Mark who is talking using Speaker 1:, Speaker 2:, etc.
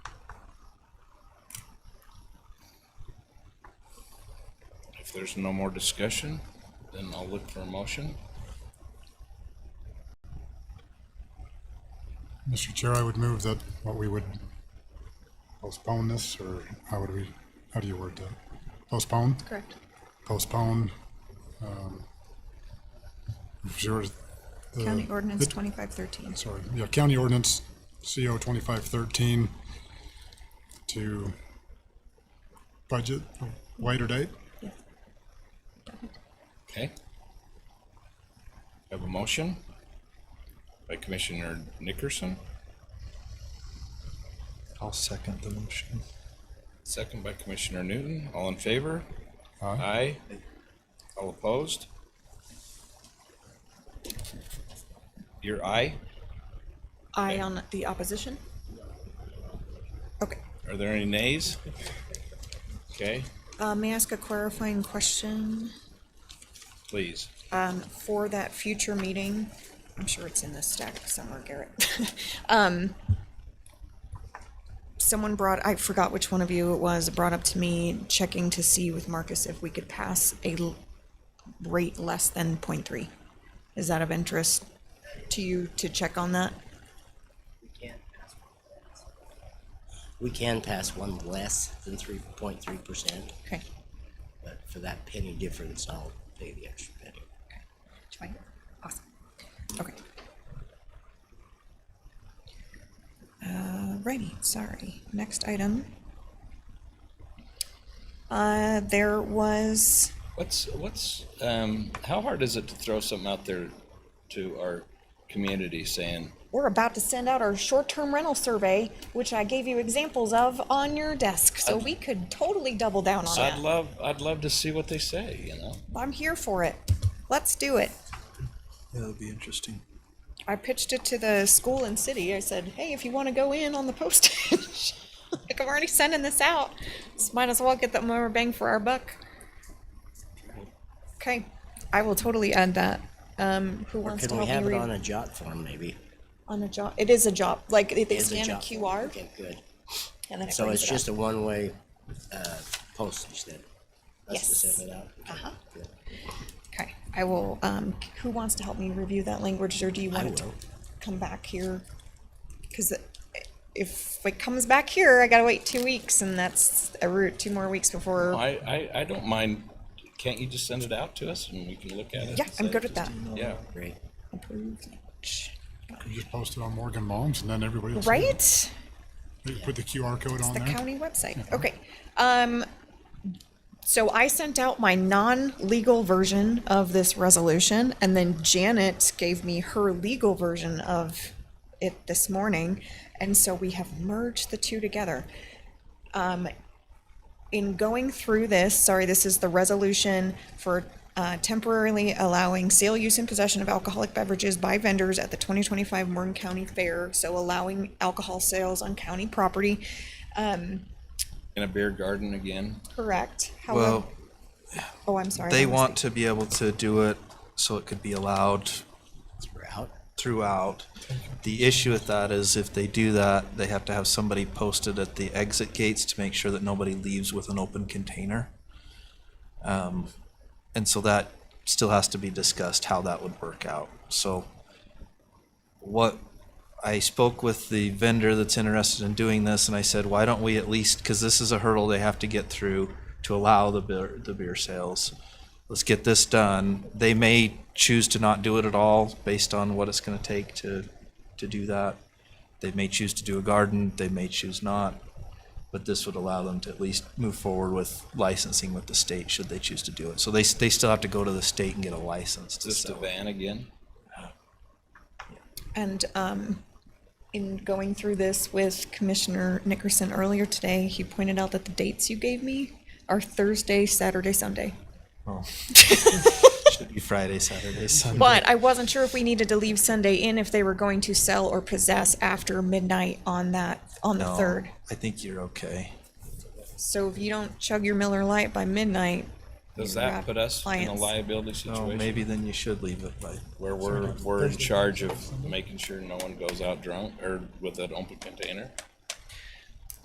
Speaker 1: If there's no more discussion, then I'll look for a motion.
Speaker 2: Mr. Chair, I would move that, what we would postpone this, or how would we, how do you word that? Postpone,
Speaker 3: Correct.
Speaker 2: postpone, um, sure. the-
Speaker 3: County ordinance
Speaker 2: the-
Speaker 3: twenty-five thirteen.
Speaker 2: Sorry, yeah, county ordinance CO twenty-five thirteen to budget later date.
Speaker 3: Yes.
Speaker 1: Okay. Have a motion by Commissioner Nickerson,
Speaker 4: I'll second the motion.
Speaker 1: second by Commissioner Newton. All in favor?
Speaker 2: Aye.
Speaker 1: Aye. All opposed? Your aye?
Speaker 3: Aye on the opposition? Okay,
Speaker 1: Are there any nays? Okay,
Speaker 3: uh, may I ask a clarifying question?
Speaker 1: please.
Speaker 3: Um, for that future meeting, I'm sure it's in this stack somewhere, Garrett. Um, someone brought, I forgot which one of you it was, brought up to me checking to see with Marcus if we could pass a l- rate less than point three. Is that of interest to you to check on that?
Speaker 5: We can pass one less. We can pass one less than three point three percent,
Speaker 3: Okay.
Speaker 5: but for that penny difference, I'll pay the extra penny.
Speaker 3: It's fine. Awesome. Okay. Alrighty, Uh, sorry. Next item. Uh, there was,
Speaker 1: What's, what's, um, how hard is it to throw something out there to our community saying,
Speaker 3: we're about to send out our short-term rental survey, which I gave you examples of on your desk, so we could totally double down on
Speaker 1: I'd
Speaker 3: that.
Speaker 1: love, I'd love to see what they say, you know?
Speaker 3: I'm here for it. Let's do it.
Speaker 4: Yeah, that'd be interesting.
Speaker 3: I pitched it to the school and city. I said, "Hey, if you want to go in on the postage, like I'm already sending this out, just might as well get that more bang for our buck." Okay, I will totally add that. Um, who
Speaker 5: Or
Speaker 3: wants to
Speaker 5: can we
Speaker 3: help
Speaker 5: have
Speaker 3: me
Speaker 5: it
Speaker 3: read
Speaker 5: on a jot form, maybe?
Speaker 3: on a job? It is a job. Like they, they
Speaker 5: Is
Speaker 3: scan a,
Speaker 5: jot form.
Speaker 3: QR
Speaker 5: Okay, good.
Speaker 3: and then it
Speaker 5: So
Speaker 3: brings it
Speaker 5: it's
Speaker 3: up.
Speaker 5: just a one-way, uh, postage then? Us to
Speaker 3: Yes.
Speaker 5: send it out?
Speaker 3: Uh-huh.
Speaker 5: Good.
Speaker 3: Okay, I will. Um, who wants to help me review that language, or do you want
Speaker 5: I
Speaker 3: it to
Speaker 5: will.
Speaker 3: come back here? Because if it comes back here, I gotta wait two weeks, and that's a root two more weeks before.
Speaker 1: I, I, I don't mind, can't you just send it out to us and we can look at it?
Speaker 3: yeah,
Speaker 1: and
Speaker 3: I'm
Speaker 1: say,
Speaker 3: good with that.
Speaker 1: Yeah,
Speaker 5: Great.
Speaker 3: Approved. Shh.
Speaker 2: You just post it on Morgan Moms and then everybody else.
Speaker 3: Right?
Speaker 2: You Put the QR code on
Speaker 3: The
Speaker 2: there.
Speaker 3: county website. Okay. Um, so I sent out my non-legal version of this resolution, and then Janet gave me her legal version of it this morning, and so we have merged the two together. Um, in going through this, sorry, this is the resolution for uh, temporarily allowing sale, use, and possession of alcoholic beverages by vendors at the 2025 Morgan County Fair. So allowing alcohol sales on county property. Um,
Speaker 1: in a beer garden again.
Speaker 3: correct. However,
Speaker 4: Well,
Speaker 3: oh, I'm sorry.
Speaker 4: they
Speaker 3: that was
Speaker 4: want to be able to do it so it could be allowed
Speaker 5: Throughout,
Speaker 4: throughout. The issue with that is if they do that, they have to have somebody posted at the exit gates to make sure that nobody leaves with an open container. Um, And so that still has to be discussed, how that would work out. So what, I spoke with the vendor that's interested in doing this and I said, why don't we at least, because this is a hurdle they have to get through to allow the beer, the beer sales. Let's get this done. They may choose to not do it at all based on what it's going to take to, to do that. They may choose to do a garden, they may choose not. But this would allow them to at least move forward with licensing with the state should they choose to do it. So they, s- they still have to go to the state and get a license to
Speaker 1: Just a
Speaker 4: sell. it.
Speaker 1: van again.
Speaker 3: And um, in going through this with Commissioner Nickerson earlier today, he pointed out that the dates you gave me are Thursday, Saturday, Sunday.
Speaker 4: Oh. Should be Friday, Saturday, Sunday.
Speaker 3: But I wasn't sure if we needed to leave Sunday in if they were going to sell or possess after midnight on that, on the
Speaker 4: No,
Speaker 3: third.
Speaker 4: I think you're okay.
Speaker 3: So if you don't chug your Miller Lite by midnight,
Speaker 1: Does
Speaker 3: You're
Speaker 1: that put us in a
Speaker 3: clients.
Speaker 1: liability
Speaker 4: No,
Speaker 1: situation
Speaker 4: maybe then you should leave it by.
Speaker 1: where we're, we're in charge of making sure no one goes out drunk or with an open container?